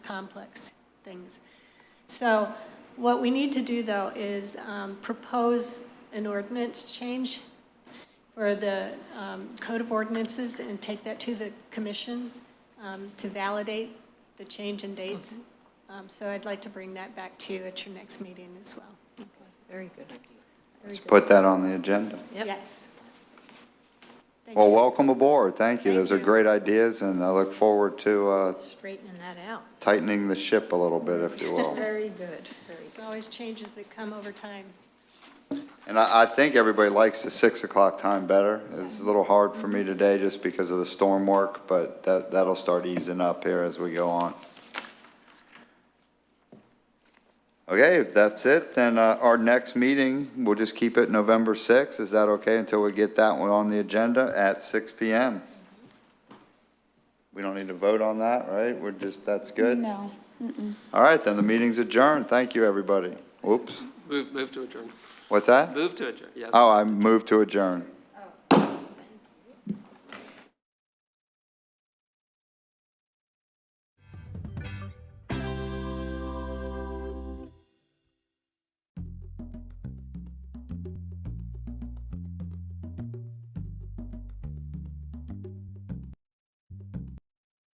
complex things. So what we need to do, though, is um, propose an ordinance change for the um, Code of Ordinances and take that to the commission um, to validate the change in dates. Um, So I'd like to bring that back to you at your next meeting as well. Very good. Let's put that on the agenda. Yep. Yes. Thank Well, you. welcome aboard. Thank you. Thank Those are you. great ideas, and I look forward to uh, Straightening that out. tightening the ship a little bit, if you will. Very good, very There's good. always changes that come over time. And I, I think everybody likes the 6 o'clock time better. It's a little hard for me today just because of the storm work, but that, that'll start easing up here as we go on. Okay, if that's it, then uh, our next meeting, we'll just keep it November 6th. Is that okay until we get that one on the agenda at 6 PM? We don't need to vote on that, right? We're just, that's good? No. All right, then the meeting's adjourned. Thank you, everybody. Oops, Move, move to adjourn. what's that? Move to adjourn, yes. Oh, I moved to adjourn.